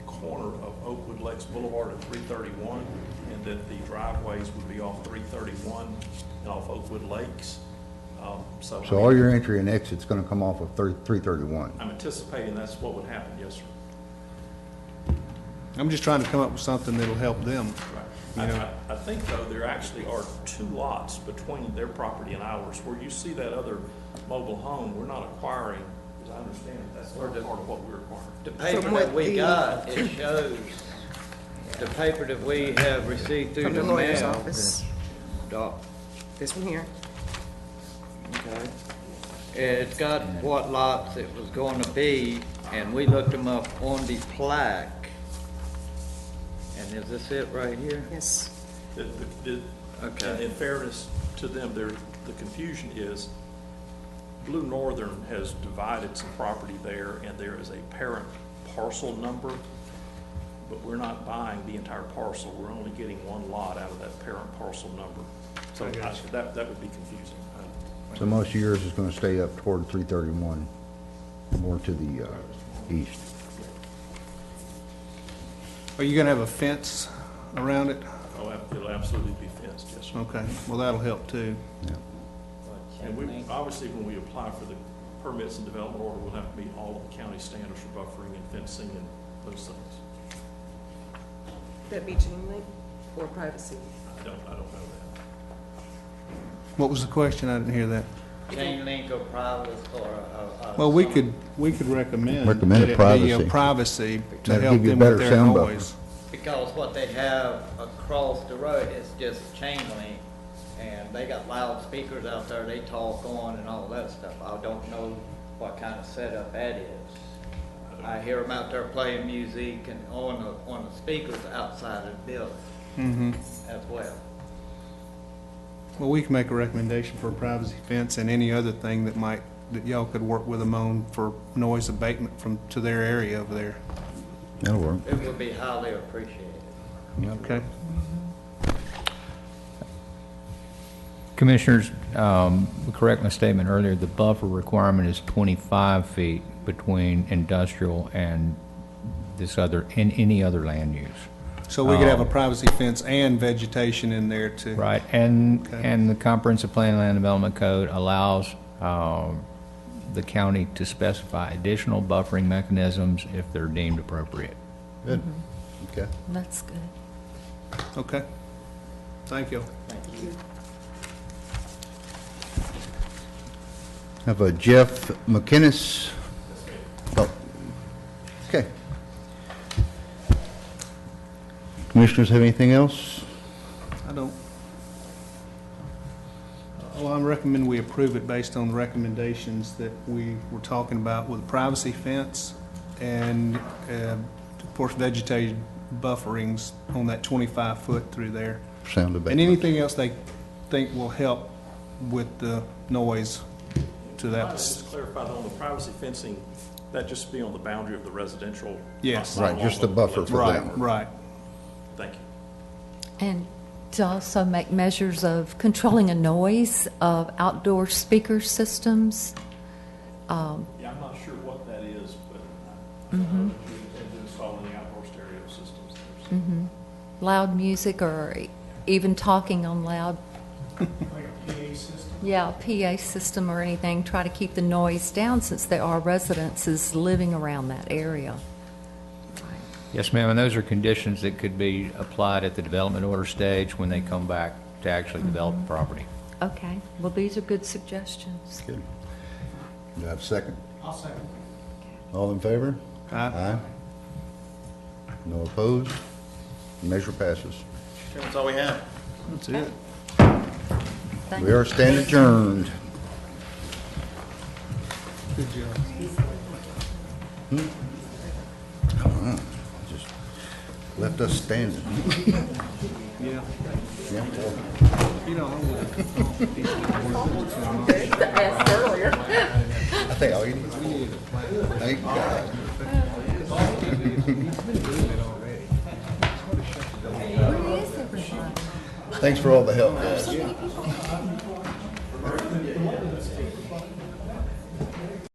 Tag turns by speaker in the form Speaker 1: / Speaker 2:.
Speaker 1: corner of Oakwood Lakes Boulevard at 331, and that the driveways would be off 331 and off Oakwood Lakes. Um, So
Speaker 2: So all your entry and exit's gonna come off of thir- 331.
Speaker 1: I'm anticipating that's what would happen, yes, sir.
Speaker 3: I'm just trying to come up with something that'll help them.
Speaker 1: I,
Speaker 3: You know-
Speaker 1: I- I think though, there actually are two lots between their property and ours, where you see that other mobile home, we're not acquiring, as I understand it, that's not part of what we're acquiring.
Speaker 4: The paper
Speaker 5: From
Speaker 4: that
Speaker 5: what
Speaker 4: we
Speaker 5: the-
Speaker 4: got, it shows, the paper that we have received through
Speaker 5: From
Speaker 4: the
Speaker 5: the lawyer's
Speaker 4: mail.
Speaker 5: office,
Speaker 4: Doc,
Speaker 5: this one here.
Speaker 4: okay. It's got what lots it was going to be, and we looked them up on the plaque. And is this it right here?
Speaker 5: Yes,
Speaker 1: The- the- the-
Speaker 4: Okay.
Speaker 1: and In fairness to them, there, the confusion is, Blue Northern has divided some property there, and there is a parent parcel number, but we're not buying the entire parcel, we're only getting one lot out of that parent parcel number. So I- that, that would be confusing.
Speaker 2: So most of yours is gonna stay up toward 331, more to the uh, east.
Speaker 3: Are you gonna have a fence around it?
Speaker 1: Oh, ab- it'll absolutely be fenced, yes, sir.
Speaker 3: Okay, well, that'll help too.
Speaker 1: And we, obviously, when we apply for the permits and development order, we'll have to meet all of the county standards for buffering and fencing and those things.
Speaker 5: that be chain link for privacy.
Speaker 1: I don't, I don't know that.
Speaker 3: What was the question? I didn't hear that.
Speaker 4: Chain link or privates or, or. or
Speaker 3: Well, we
Speaker 4: some-
Speaker 3: could, we could recommend.
Speaker 2: Recommend
Speaker 3: that it be, uh,
Speaker 2: privacy.
Speaker 3: Privacy to
Speaker 2: That'd
Speaker 3: help
Speaker 2: give you a
Speaker 3: them
Speaker 2: better
Speaker 3: with their
Speaker 2: sound buffer.
Speaker 3: noise.
Speaker 4: Because what they have across the road is just chain link, and they got loudspeakers out there, they talk on and all that stuff. I don't know what kind of setup that is. I hear them out there playing music and on the, on the speakers outside of the building
Speaker 3: Mhm.
Speaker 4: as well.
Speaker 3: Well, we can make a recommendation for a privacy fence and any other thing that might, that y'all could work with them on for noise abatement from, to their area over there.
Speaker 2: That'll work.
Speaker 4: It would be highly appreciated.
Speaker 3: Okay?
Speaker 6: Commissioners, um, correct my statement earlier, the buffer requirement is 25 feet between industrial and this other, and any other land use,
Speaker 3: So we could
Speaker 2: Um,
Speaker 3: have a privacy fence and vegetation in there too.
Speaker 6: right? And,
Speaker 3: Okay.
Speaker 6: and the comprehensive plan land development code allows um, the county to specify additional buffering mechanisms if they're deemed appropriate.
Speaker 2: Good. Okay.
Speaker 7: That's good.
Speaker 3: Okay? Thank you.
Speaker 2: Have a Jeff McInnes. Oh, Okay. Commissioners have anything else?
Speaker 3: I don't. Well, I recommend we approve it based on the recommendations that we were talking about with privacy fence and, uh, of course, vegetated bufferings on that 25-foot through there.
Speaker 2: Sound about.
Speaker 3: And anything else they think will help with the noise to
Speaker 1: If I
Speaker 3: that.
Speaker 1: could Just clarify though, on the privacy fencing, that just be on the boundary of the residential?
Speaker 3: Yes.
Speaker 1: not
Speaker 2: Right, just the
Speaker 1: along
Speaker 2: buffer for
Speaker 3: Right,
Speaker 2: them.
Speaker 3: right.
Speaker 1: Thank you.
Speaker 7: And to also make measures of controlling a noise of outdoor speaker systems.
Speaker 1: Yeah, I'm not sure what that is, but I- I know that you intend to install any outdoor stereo systems there. so-
Speaker 7: loud music or even talking on loud. Like a PA system? Yeah, a PA system or anything, try to keep the noise down since there are residences living around that area.
Speaker 6: Yes, ma'am, and those are conditions that could be applied at the development order stage when they come back to actually develop the property.
Speaker 7: Okay, well, these are good suggestions.
Speaker 2: Good. Do I have a second? I'll second. All in favor? Aye. No opposed? Measure passes.
Speaker 4: That's all we have.
Speaker 3: That's it.
Speaker 7: Thank
Speaker 2: We are stand adjourned.
Speaker 3: Good job.
Speaker 2: Hmm? Just left us standing.
Speaker 3: Yeah.
Speaker 2: Yeah, well.
Speaker 3: You know, I would.
Speaker 2: I think I'll eat it. Thank God. Thanks for all the help, guys.